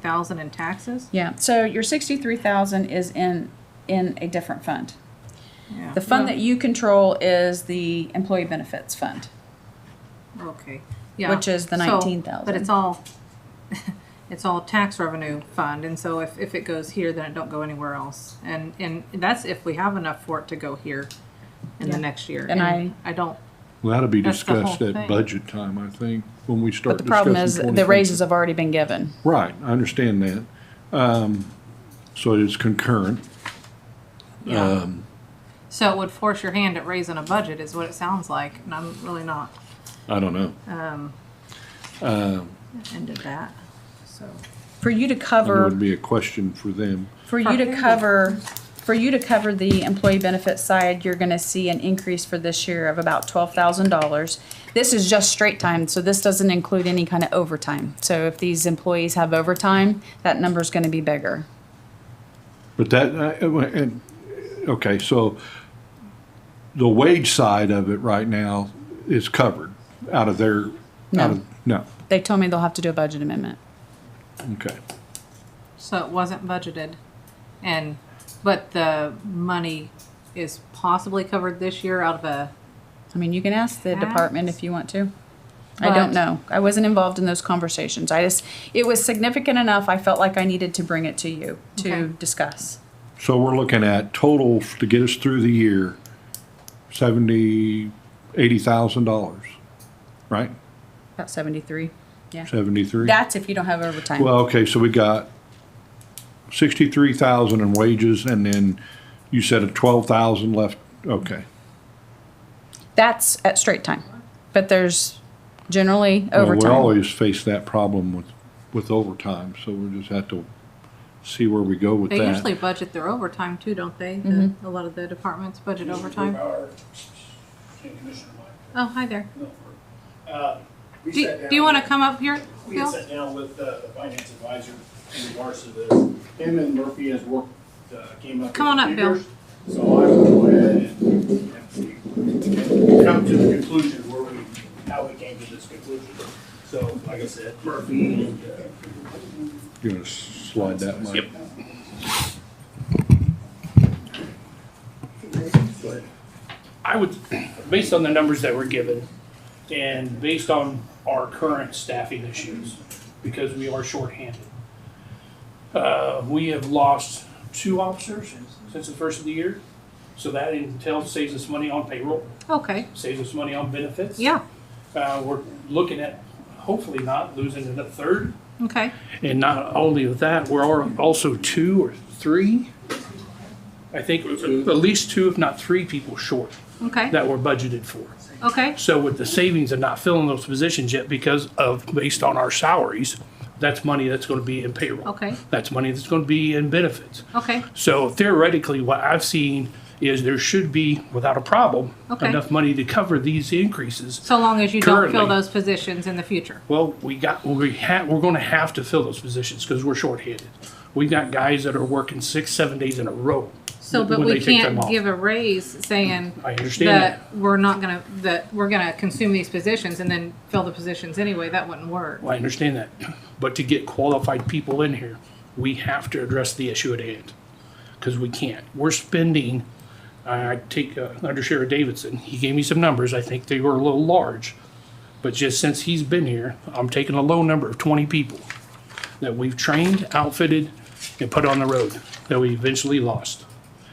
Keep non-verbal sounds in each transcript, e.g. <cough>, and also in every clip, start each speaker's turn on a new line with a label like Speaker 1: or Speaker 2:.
Speaker 1: thousand in taxes?
Speaker 2: Yeah, so your sixty-three thousand is in, in a different fund.
Speaker 1: Yeah.
Speaker 2: The fund that you control is the employee benefits fund.
Speaker 1: Okay, yeah.
Speaker 2: Which is the
Speaker 1: So,
Speaker 2: 19,000.
Speaker 1: But it's all, <laughs> it's all tax revenue fund, and so if, if it goes here, then it don't go anywhere else. And, and that's if we have enough for it to go here in
Speaker 2: Yeah.
Speaker 1: the next year.
Speaker 2: And
Speaker 1: I don't,
Speaker 3: Well, that'll be
Speaker 1: That's the whole
Speaker 3: discussed at
Speaker 1: thing.
Speaker 3: budget time, I think, when we
Speaker 2: But
Speaker 3: start
Speaker 2: the problem
Speaker 3: discussing
Speaker 2: is, the
Speaker 3: 2020.
Speaker 2: raises have already been given.
Speaker 3: Right, I understand that. Um, so it is concurrent.
Speaker 1: yeah. So it would force your hand at raising a budget is what it sounds like, and I'm really not
Speaker 3: I don't know.
Speaker 1: into that, so.
Speaker 2: For you to
Speaker 3: There would
Speaker 2: cover,
Speaker 3: be a question for them.
Speaker 2: for you to cover, for you to cover the employee benefit side, you're gonna see an increase for this year of about twelve thousand dollars. This is just straight time, so this doesn't include any kind of overtime. So if these employees have overtime, that number's gonna be bigger.
Speaker 3: But that, uh, uh, and, okay, so the wage side of it right now is covered out of their, out of, no,
Speaker 2: They told me they'll have to do a budget amendment.
Speaker 3: okay.
Speaker 1: So it wasn't budgeted, and, but the money is possibly covered this year out of a
Speaker 2: I mean, you can ask the department if you want to. I
Speaker 1: But-
Speaker 2: don't know. I wasn't involved in those conversations. I just, it was significant enough, I felt like I needed to bring it to you to
Speaker 1: Okay.
Speaker 2: discuss.
Speaker 3: So we're looking at total f- to get us through the year, seventy, eighty thousand dollars, right?
Speaker 2: About seventy-three, yeah.
Speaker 3: Seventy-three?
Speaker 2: That's if you don't have overtime.
Speaker 3: Well, okay, so we got sixty-three thousand in wages and then you said a twelve thousand left, okay.
Speaker 2: That's at straight time, but there's generally
Speaker 3: Well, We
Speaker 2: overtime.
Speaker 3: always face that problem with, with overtime, so we just have to see where we go with
Speaker 1: They usually
Speaker 3: that.
Speaker 1: budget their overtime too, don't they? The, A lot of the departments budget overtime.
Speaker 4: Hey, Commissioner Mike
Speaker 1: Oh, hi there.
Speaker 4: Milford. Uh, we
Speaker 1: Do,
Speaker 4: sat down
Speaker 1: do you want to
Speaker 4: with-
Speaker 1: come up here,
Speaker 4: We had
Speaker 1: Bill?
Speaker 4: sat down with uh, the finance advisor in regards to this. Him and Murphy has worked, uh, came up.
Speaker 1: Come on up,
Speaker 4: with
Speaker 1: Bill.
Speaker 4: figures. So I will go ahead and and see- and come to the conclusion where we, how we came to this conclusion. So, like I said, Murphy and uh,
Speaker 3: You're gonna slide that, Mike?
Speaker 5: I would, based on the numbers that were given, and based on our current staffing issues, because we are shorthanded. Uh, we have lost two officers since the first of the year, so that entails saves us money on payroll,
Speaker 1: Okay.
Speaker 5: saves us money on benefits.
Speaker 1: Yeah.
Speaker 5: Uh, we're looking at hopefully not losing another third.
Speaker 1: Okay.
Speaker 5: And not only of that, we're al- also two or three, I think, at least two, if not three people short
Speaker 1: Okay.
Speaker 5: that were budgeted for.
Speaker 1: Okay.
Speaker 5: So with the savings of not filling those positions yet because of, based on our salaries, that's money that's gonna be in payroll.
Speaker 1: Okay.
Speaker 5: That's money that's gonna be in benefits.
Speaker 1: Okay.
Speaker 5: So theoretically, what I've seen is there should be, without a problem,
Speaker 1: Okay.
Speaker 5: enough money to cover these increases.
Speaker 1: So long as you don't fill
Speaker 5: Currently-
Speaker 1: those positions in the future.
Speaker 5: Well, we got, we ha we're gonna have to fill those positions because we're shorthanded. We've got guys that are working six, seven days in a row.
Speaker 1: So, but
Speaker 5: when
Speaker 1: we
Speaker 5: they take
Speaker 1: can't
Speaker 5: time off.
Speaker 1: give a raise saying
Speaker 5: I understand that.
Speaker 1: that we're not gonna, that we're gonna consume these positions and then fill the positions anyway. That wouldn't work.
Speaker 5: Well, I understand that, but to get qualified people in here, we have to address the issue at hand, because we can't. We're spending, I I take uh, Under Sheriff Davidson, he gave me some numbers, I think they were a little large, but just since he's been here, I'm taking a low number of twenty people that we've trained, outfitted, and put on the road, that we eventually lost.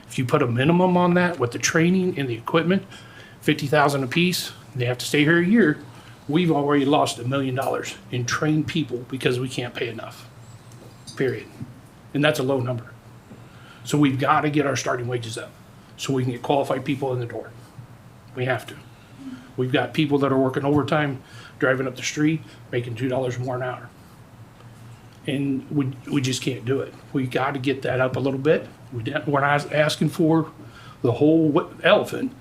Speaker 5: If you put a minimum on that with the training and the equipment, fifty thousand apiece, they have to stay here a year, we've already lost a million dollars in trained people because we can't pay enough. Period. And that's a low number. So we've got to get our starting wages up so we can get qualified people in the door. We have to. We've got people that are working overtime, driving up the street, making two dollars more an hour. And we, we just can't do it. We got to get that up a little bit. We didn't, we're not asking for the whole wa- elephant.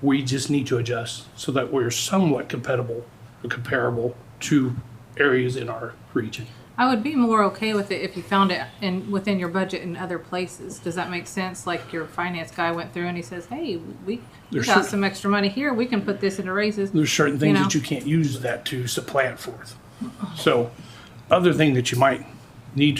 Speaker 5: We just need to adjust so that we're somewhat compatible, or comparable to areas in our region.
Speaker 1: I would be more okay with it if you found it in within your budget in other places. Does that make sense? Like your finance guy went through and he says, "Hey, we, we
Speaker 5: There's
Speaker 1: got
Speaker 5: cer-
Speaker 1: some extra money here. We can put this into raises."
Speaker 5: There's certain things
Speaker 1: You know.
Speaker 5: that you can't use that to supplant forth. So, other thing that you might need to